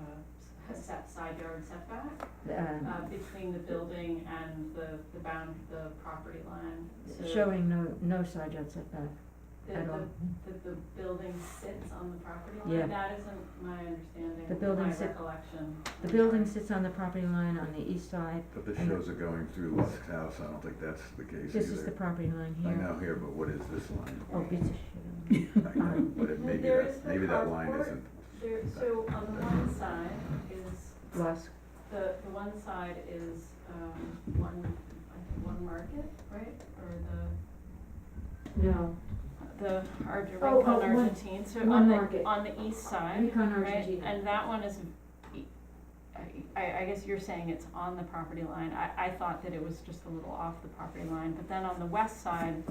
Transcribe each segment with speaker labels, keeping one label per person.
Speaker 1: uh, set side yard setback,
Speaker 2: um,
Speaker 1: uh, between the building and the, the bound, the property line. So
Speaker 2: showing no, no side yard setback
Speaker 1: that
Speaker 2: at
Speaker 1: the-
Speaker 2: all.
Speaker 1: That the building sits on the property
Speaker 2: Yeah.
Speaker 1: line, that isn't my understanding,
Speaker 2: The building
Speaker 1: my
Speaker 2: sit-
Speaker 1: recollection.
Speaker 2: The building sits on the property line on the east side,
Speaker 3: But this shows it going through Lusk's house, I don't think that's the case either.
Speaker 2: this is the property line
Speaker 3: I
Speaker 2: here.
Speaker 3: know here, but what is this line?
Speaker 2: Oh, bitch, shit. Uh,
Speaker 3: I know, but it, maybe
Speaker 1: There is
Speaker 3: that,
Speaker 1: the
Speaker 3: maybe that line
Speaker 1: carport.
Speaker 3: isn't,
Speaker 1: There, so on the one side is
Speaker 2: Lusk,
Speaker 1: The, the one side is, um, one, I think, one market, right, or
Speaker 2: no,
Speaker 1: the, the Argentine,
Speaker 2: Oh, oh,
Speaker 1: on
Speaker 2: one-
Speaker 1: Argentine, so
Speaker 2: one
Speaker 1: on the,
Speaker 2: market.
Speaker 1: on the east side,
Speaker 2: Recon
Speaker 1: right,
Speaker 2: Argentina.
Speaker 1: and that one is, I, I, I guess you're saying it's on the property line, I, I thought that it was just a little off the property line, but then on the west side,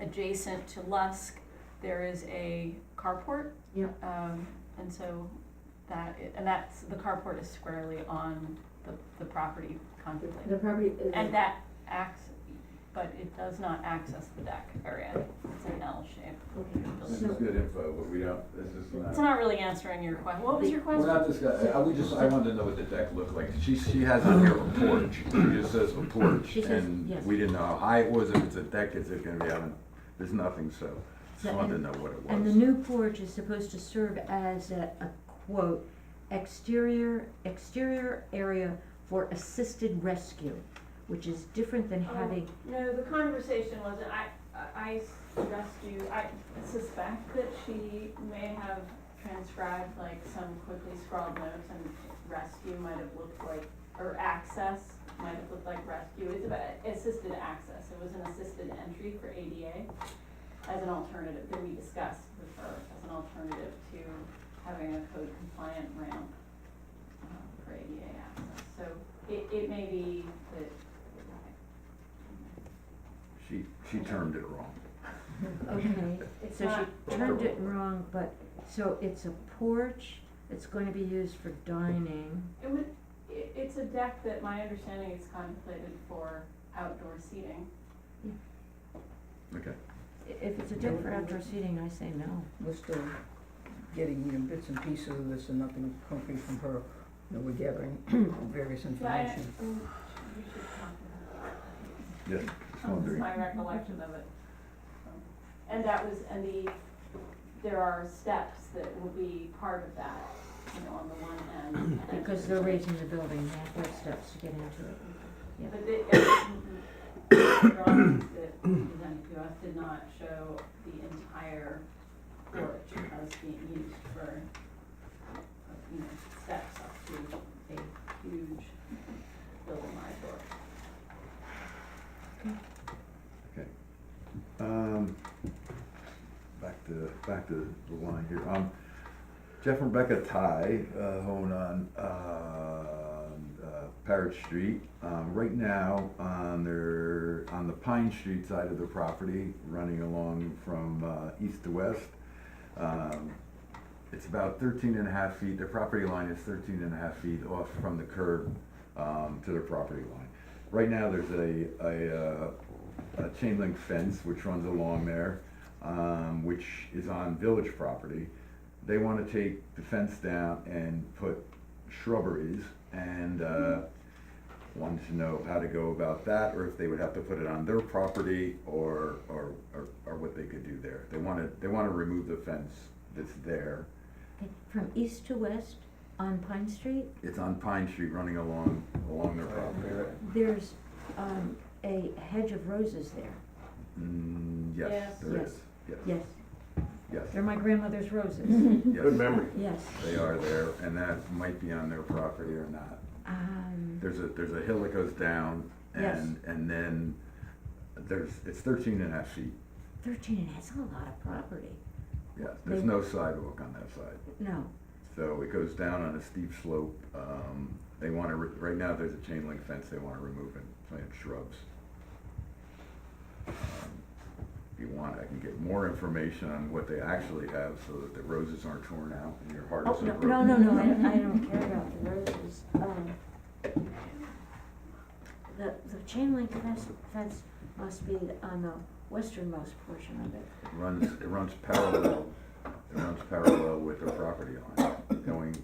Speaker 1: adjacent to Lusk, there is a carport.
Speaker 2: Yeah.
Speaker 1: Um, and so that, i- and that's, the carport is squarely on the, the property contemplated.
Speaker 2: The property is.
Speaker 1: And that acts, but it does not access the deck area. It's an L shape.
Speaker 3: this is good info, but we don't, this is not.
Speaker 1: It's not really answering your question. What was your
Speaker 3: We're
Speaker 1: question?
Speaker 3: not discussing, I, we just, I wanted to know what the deck looked like, she, she has on here a porch, she just says a porch,
Speaker 2: She says,
Speaker 3: and
Speaker 2: yes.
Speaker 3: we didn't know how high it was, if it's a deck, is it gonna be out, on- there's nothing, so, just wanted to know what it
Speaker 2: And the
Speaker 3: was.
Speaker 2: new porch is supposed to serve as a, a quote, exterior, exterior area for assisted rescue, which is different than
Speaker 1: Oh.
Speaker 2: having,
Speaker 1: No, the conversation wasn't, I, I rescue, I suspect that she may have transcribed like some quickly scrawled notes and rescue might have looked like, or access might have looked like rescue. It's about assisted access. It was an assisted entry for ADA as an alternative that we discussed with her, as an alternative to having a code compliant ramp uh, for ADA access. So it, it may be that,
Speaker 3: She, she termed it wrong.
Speaker 2: okay,
Speaker 1: It's
Speaker 2: so
Speaker 1: not,
Speaker 2: she turned it wrong, but, so it's a porch, it's going to be used for dining,
Speaker 1: it would, i it's a deck that my understanding is contemplated for outdoor seating.
Speaker 3: Okay,
Speaker 2: I- if it's a deck for outdoor seating, I say no.
Speaker 4: We're still getting, you know, bits and pieces of this and nothing concrete from her. You know, we're gathering various
Speaker 1: But I,
Speaker 4: information.
Speaker 1: mm, we should talk about
Speaker 3: yeah,
Speaker 1: that.
Speaker 3: just wondering.
Speaker 1: my recollection of it. And that was, and the, there are steps that will be part of that, you know, on the one end. and then-
Speaker 2: Because they're raising the building, they have to have steps to get into it. yeah.
Speaker 1: But the, the drawings that presented to us did not show the entire porch as being used for, you know, steps up to a huge building like door.
Speaker 3: Um, back to, back to the line here. Um, Jeff and Rebecca Ty, uh, own on, uh, uh, Parrot Street. Um, right now, on their, on the Pine Street side of the property, running along from, uh, east to west. Um, it's about thirteen and a half feet, their property line is thirteen and a half feet off from the curb, um, to their property line. Right now, there's a, a, uh, a chain link fence which runs along there, um, which is on village property. They wanna take the fence down and put shrubberies, and, uh, wanted to know how to go about that, or if they would have to put it on their property, or, or, or, or what they could do there. They wanna, they wanna remove the fence that's there.
Speaker 2: Okay, From east to west on Pine Street,
Speaker 3: It's on Pine Street, running along, along their property.
Speaker 2: there's, um, a hedge of roses there,
Speaker 3: Mm, yes,
Speaker 1: Yes.
Speaker 3: there
Speaker 2: Yes.
Speaker 3: is, yes,
Speaker 2: yes,
Speaker 3: yes,
Speaker 2: they're my grandmother's roses,
Speaker 3: yes.
Speaker 5: Good memory.
Speaker 2: yes.
Speaker 3: They are there, and that might be on their property or not.
Speaker 2: Um,
Speaker 3: There's a, there's a hill that goes down, and, and then there's, it's thirteen and a half feet.
Speaker 2: thirteen, and that's a lot of property,
Speaker 3: Yes, there's
Speaker 2: They-
Speaker 3: no sidewalk on that side,
Speaker 2: no,
Speaker 3: so it goes down on a steep slope. Um, they wanna, re- right now, there's a chain link fence they wanna remove and plant shrubs. Um, If you want, I can get more information on what they actually have, so that the roses aren't torn out and your heart
Speaker 2: oh,
Speaker 3: isn't
Speaker 2: no,
Speaker 3: broken.
Speaker 2: no, no, no, I, don't- I don't care about the roses, um. The, the chain link fence, fence must be on the westernmost portion of it,
Speaker 3: runs, it runs parallel, it runs parallel with their property line, going